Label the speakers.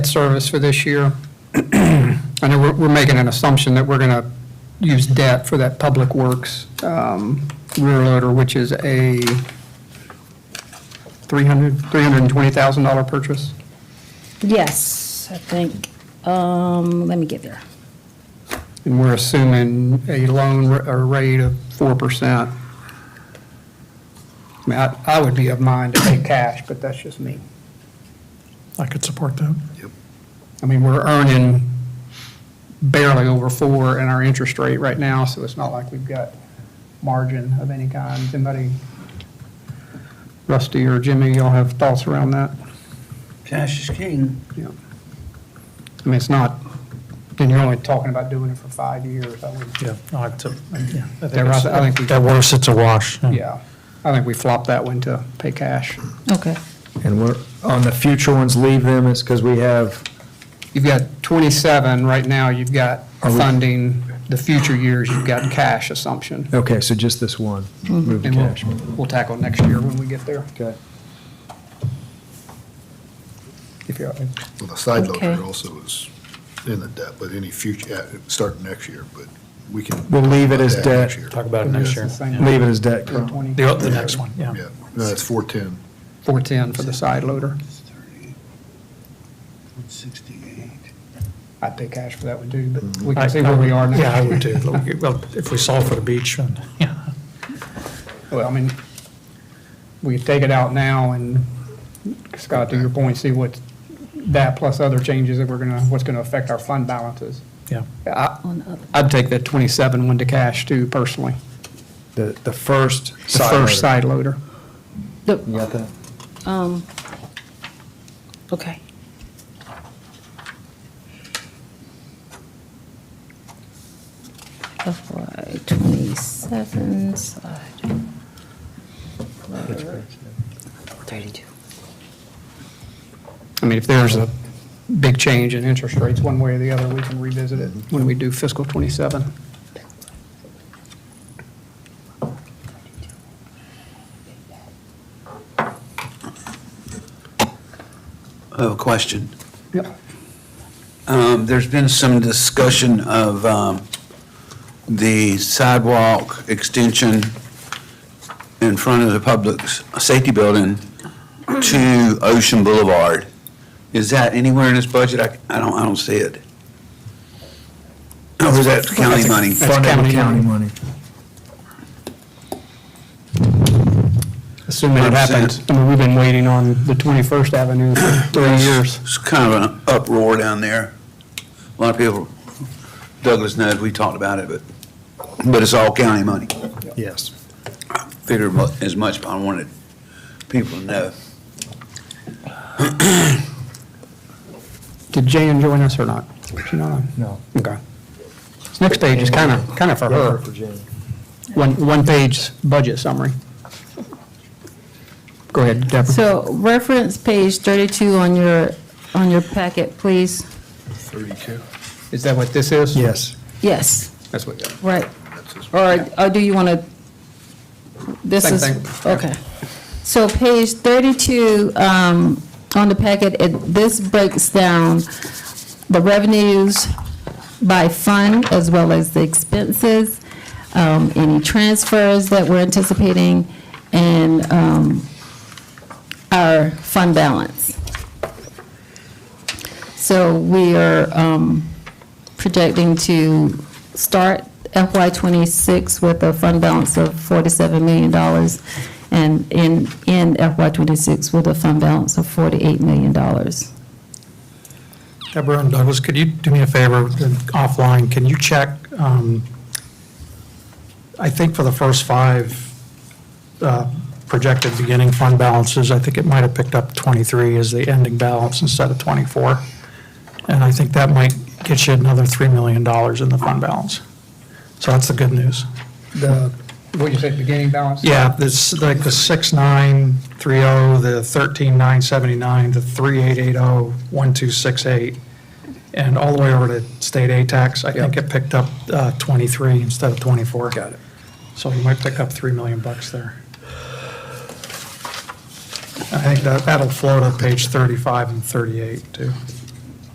Speaker 1: service for this year. I know we're, we're making an assumption that we're going to use debt for that Public Works um, rear loader, which is a $300, $320,000 purchase.
Speaker 2: Yes, I think, um, let me get there.
Speaker 1: And we're assuming a loan r- a rate of 4%. I mean, I, I would be of mind to pay cash, but that's just me.
Speaker 3: I could support that.
Speaker 1: I mean, we're earning barely over four in our interest rate right now, so it's not like we've got margin of any kind. Anybody, Rusty or Jimmy, y'all have thoughts around that?
Speaker 4: Cash is king.
Speaker 1: Yeah. I mean, it's not, and you're only talking about doing it for five years, I would,
Speaker 3: Yeah. I would sup- yeah, I think
Speaker 1: Yeah, Ross, I think we-
Speaker 3: it's- At worst, it's a wash.
Speaker 1: yeah. I think we flopped that one to pay cash.
Speaker 2: Okay.
Speaker 5: And we're, on the future ones, leave them, it's because we have,
Speaker 1: You've got 27, right now you've got
Speaker 5: Are we-
Speaker 1: funding, the future years you've got cash assumption.
Speaker 5: okay, so just this one, move to
Speaker 1: Mm-hmm. And
Speaker 5: cash.
Speaker 1: we'll, we'll tackle next year when we get there.
Speaker 5: Okay.
Speaker 1: If you're,
Speaker 6: Well, the side
Speaker 2: Okay.
Speaker 6: loader also is in the debt, but any future, uh, starting next year, but we can.
Speaker 5: We'll leave it as
Speaker 6: That next
Speaker 5: debt.
Speaker 6: year.
Speaker 3: Talk about it next year.
Speaker 1: It's the same.
Speaker 5: Leave it as debt,
Speaker 1: for
Speaker 5: Carl.
Speaker 1: 20,
Speaker 3: The, the next one, yeah.
Speaker 6: Yeah, no, that's 410.
Speaker 1: 410 for the side loader.
Speaker 4: Sixty-eight.
Speaker 1: I'd pay cash for that one too, but we can see where we are now.
Speaker 3: Yeah, I would do. Look, Well, if we solve for the beach, then, yeah.
Speaker 1: Well, I mean, we could take it out now and, Scott, to your point, see what, that plus other changes that we're gonna, what's gonna affect our fund balances.
Speaker 3: yeah.
Speaker 1: I-
Speaker 2: On the other,
Speaker 1: I'd take that 27 one to cash too, personally.
Speaker 5: The, the first
Speaker 1: The
Speaker 5: side.
Speaker 1: first
Speaker 5: letter.
Speaker 1: side loader.
Speaker 5: You got that?
Speaker 2: um, okay. FY twenty-seven slide. Thirty-two.
Speaker 1: I mean, if there's a big change in interest rates one way or the other, we can revisit it when we do fiscal '27.
Speaker 4: I have a question.
Speaker 1: Yep.
Speaker 4: Um, there's been some discussion of, um, the sidewalk extension in front of the public s- safety building to Ocean Boulevard. Is that anywhere in this budget? I, I don't, I don't see it. Or is that county money?
Speaker 1: That's
Speaker 5: Funded with
Speaker 1: county
Speaker 5: county money.
Speaker 1: Assuming it happens. I mean, we've been waiting on the 21st Avenue for three years.
Speaker 4: It's kind of an uproar down there. A lot of people, Douglas knows, we talked about it, but, but it's all county money.
Speaker 5: Yes.
Speaker 4: Figured mu- as much, but I wanted people to know.
Speaker 1: Did Jan join us or not? She not on?
Speaker 5: No.
Speaker 1: Okay. This next page is kind of, kind of for her. One, one-page budget summary. Go ahead, Deborah.
Speaker 2: So reference page thirty-two on your, on your packet, please.
Speaker 6: 32.
Speaker 1: Is that what this is?
Speaker 5: Yes.
Speaker 2: Yes,
Speaker 1: That's what,
Speaker 2: right.
Speaker 6: That's his-
Speaker 2: Or, or do you want to, this
Speaker 1: Same
Speaker 2: is,
Speaker 1: thing.
Speaker 2: okay. So page 32 um, on the packet, it, this breaks down the revenues by fund as well as the expenses, um, any transfers that we're anticipating, and um, our fund balance. So we are um, projecting to start FY '26 with a fund balance of $47 million and in- end FY '26 with a fund balance of $48 million.
Speaker 3: Deborah and Douglas, could you do me a favor then offline? Can you check, um, I think for the first five uh, projected beginning fund balances, I think it might have picked up 23 as the ending balance instead of 24. And I think that might get you another $3 million in the fund balance. So that's the good news.
Speaker 1: the, what you said, beginning balance?
Speaker 3: Yeah, this, like the 6930, oh, the 13979, the 3880, 1268, and all the way over to state A tax, I think
Speaker 1: Yep.
Speaker 3: it picked up uh, 23 instead of 24.
Speaker 1: Got it.
Speaker 3: So you might pick up 3 million bucks there. I think that, that'll float on page 35 and 38 too.